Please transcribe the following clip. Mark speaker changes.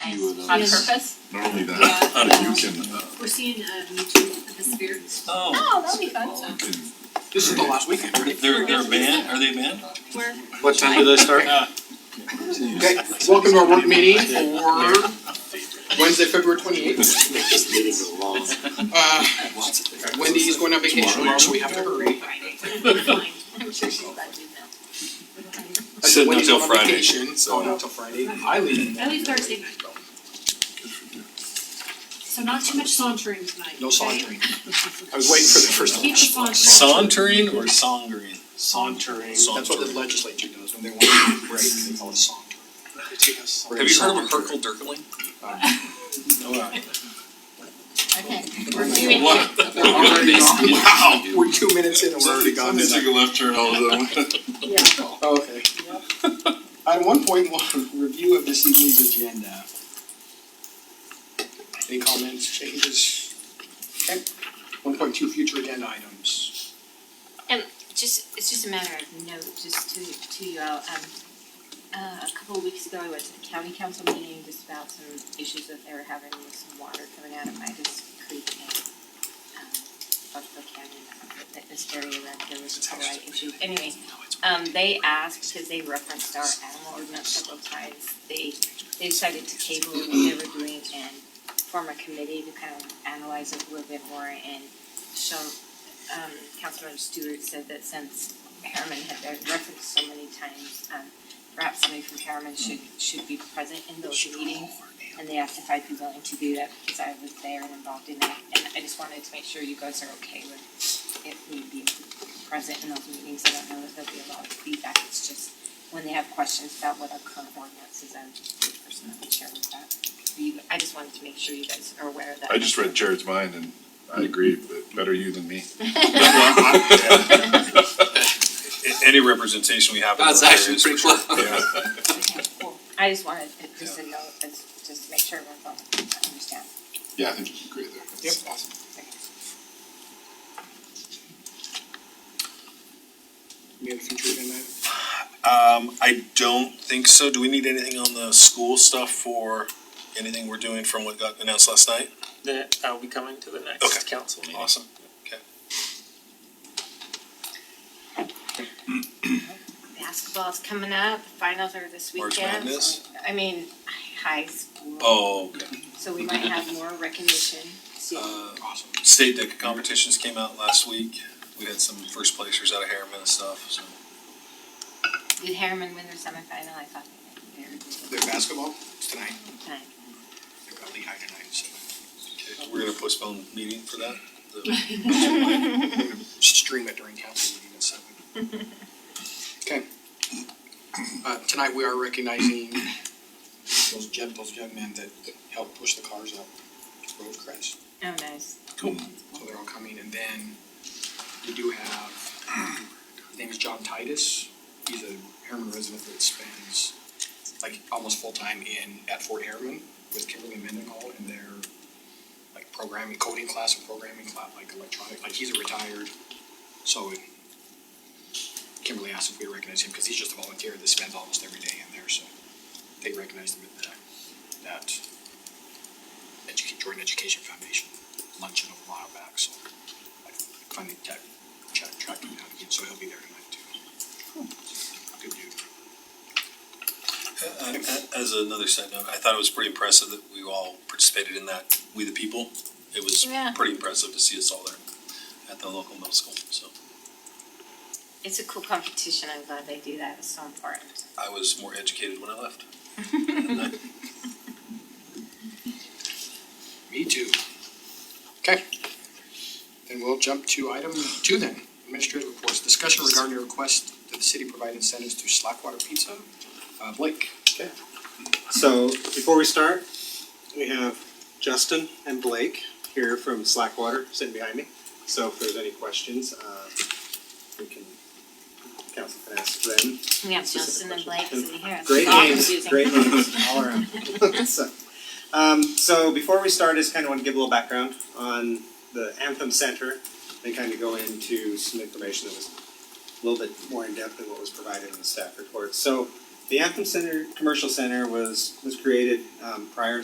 Speaker 1: few of those.
Speaker 2: On purpose?
Speaker 1: Not only that,
Speaker 3: Yeah.
Speaker 1: but you can, uh,
Speaker 2: We're seeing, um, YouTube at the spirit.
Speaker 3: Oh,
Speaker 2: Oh, that'll be fun.
Speaker 1: you can,
Speaker 4: This is the last weekend, right?
Speaker 3: they're, they're a band, are they a band?
Speaker 2: Where,
Speaker 4: What time do they start? Okay, welcome to our work meeting for Wednesday, February twenty eighth. Uh, Wendy is going on vacation tomorrow, so we have to hurry.
Speaker 2: I'm sure she's glad to do that.
Speaker 4: So
Speaker 5: Sitting until Friday,
Speaker 4: So not till Friday. I leave.
Speaker 2: I leave Thursday night. So not too much sauntering tonight.
Speaker 4: No
Speaker 2: okay?
Speaker 4: sauntering. I was waiting for the first
Speaker 2: Keep
Speaker 4: one.
Speaker 2: the sauntering.
Speaker 3: Sauntering or songering?
Speaker 4: Sauntering. That's what the
Speaker 3: Sauntering.
Speaker 4: legislature does when they want to break. They call it sauntering. They take a sauntering.
Speaker 5: Have you heard of a Herkel Dirkling?
Speaker 2: Okay, we're doing
Speaker 5: What?
Speaker 2: it.
Speaker 4: They're already on.
Speaker 5: Wow.
Speaker 4: We're two minutes in and we're already gone.
Speaker 1: Somebody took a left turn all of them.
Speaker 2: Yeah.
Speaker 4: Oh, Okay. Item one point one, review of this evening's agenda. Any comments, changes? Okay. One point two, future agenda items.
Speaker 6: Just, it's just a matter of note, just to, to you all, um, uh, a couple of weeks ago, I went to the county council meeting just about some issues that they were having with some water coming out of Midas Creek and, um, Buffalo Canyon, that- that this area around there was a light issue. Anyways, um, they asked, because they referenced our animal ordinance several times, they, they decided to table what they were doing and form a committee to kind of analyze it a little bit more and show um Councilmember Stewart said that since Harriman had been referenced so many times, um perhaps somebody from Harriman should should be present in those meetings. And they asked if I'd be willing to do that because I was there and involved in that, and I just wanted to make sure you guys are okay with if we be present in those meetings, I don't know if there'll be a lot of feedback, it's just when they have questions about what our current ordinance is, I'm the person that would share with that. You, I just wanted to make sure you guys are aware of that.
Speaker 1: I just read Jared's mind and I agree, but better you than me.
Speaker 5: A- Any representation we have in
Speaker 4: That's
Speaker 5: those
Speaker 4: actually
Speaker 5: areas,
Speaker 4: pretty
Speaker 5: for sure.
Speaker 1: Yeah.
Speaker 6: Okay, cool. I just wanted, to- just to know, it's, just to make sure everyone's on, understand.
Speaker 1: Yeah, I think you agree there.
Speaker 4: Yep, awesome. Any other future agenda items?
Speaker 5: Um, I don't think so. Do we need anything on the school stuff for anything we're doing from what got announced last night?
Speaker 7: that uh, I'll be coming to the
Speaker 5: Okay.
Speaker 7: next council meeting.
Speaker 5: Awesome.
Speaker 6: Basketball's coming up, finals are this
Speaker 5: March
Speaker 6: weekend,
Speaker 5: Madness?
Speaker 6: so- I mean, high school.
Speaker 5: Oh, okay.
Speaker 6: So we might have more recognition soon.
Speaker 5: Uh,
Speaker 4: Awesome.
Speaker 5: state deck competitions came out last week. We had some first placers out of Harriman and stuff, so.
Speaker 6: Did Harriman win their semifinal? I thought they did.
Speaker 4: Their basketball tonight,
Speaker 6: Time.
Speaker 4: they've got Lehigh tonight, so
Speaker 5: Okay, We're gonna postpone meeting for that. The-
Speaker 4: we're gonna stream it during council meeting at seven. Okay. Uh, tonight we are recognizing those gen, those young men that that helped push the cars up Rosecrans.
Speaker 6: Oh, nice.
Speaker 4: So they're all coming, and then we do have, his name is John Titus, he's a Harriman resident that spends like almost full-time in, at Fort Harriman with Kimberly Mendenhall and their like programming, coding class and programming class, like electronic, like he's a retired, so it- Kimberly asked if we recognize him, cause he's just a volunteer that spends almost every day in there, so they recognize him at the, that educate, Jordan Education Foundation luncheon a while back, so I finally tech, check, tracked him down again, so he'll be there tonight too. Good dude.
Speaker 5: Uh, As another side note, I thought it was pretty impressive that we all participated in that, We the People. It was
Speaker 6: Yeah.
Speaker 5: pretty impressive to see us all there at the local middle school, so
Speaker 6: It's a cool competition. I'm glad they do that. It's so important.
Speaker 5: I was more educated when I left.
Speaker 4: Me too. Okay. Then we'll jump to item two then, administrative reports, discussion regarding a request that the city provide incentives to Slackwater Pizza. Uh, Blake?
Speaker 8: So before we start, we have Justin and Blake here from Slackwater sitting behind me. So if there's any questions, uh, we can, council can ask them.
Speaker 6: We have
Speaker 8: Specific
Speaker 6: Justin and Blake
Speaker 8: question.
Speaker 6: sitting here. It's
Speaker 8: Great
Speaker 6: all
Speaker 8: names,
Speaker 6: confusing.
Speaker 8: great names all around. So, um, so before we start, I just kind of want to give a little background on the Anthem Center and kind of go into some information that was a little bit more in depth than what was provided in the staff report. So The Anthem Center Commercial Center was was created um, prior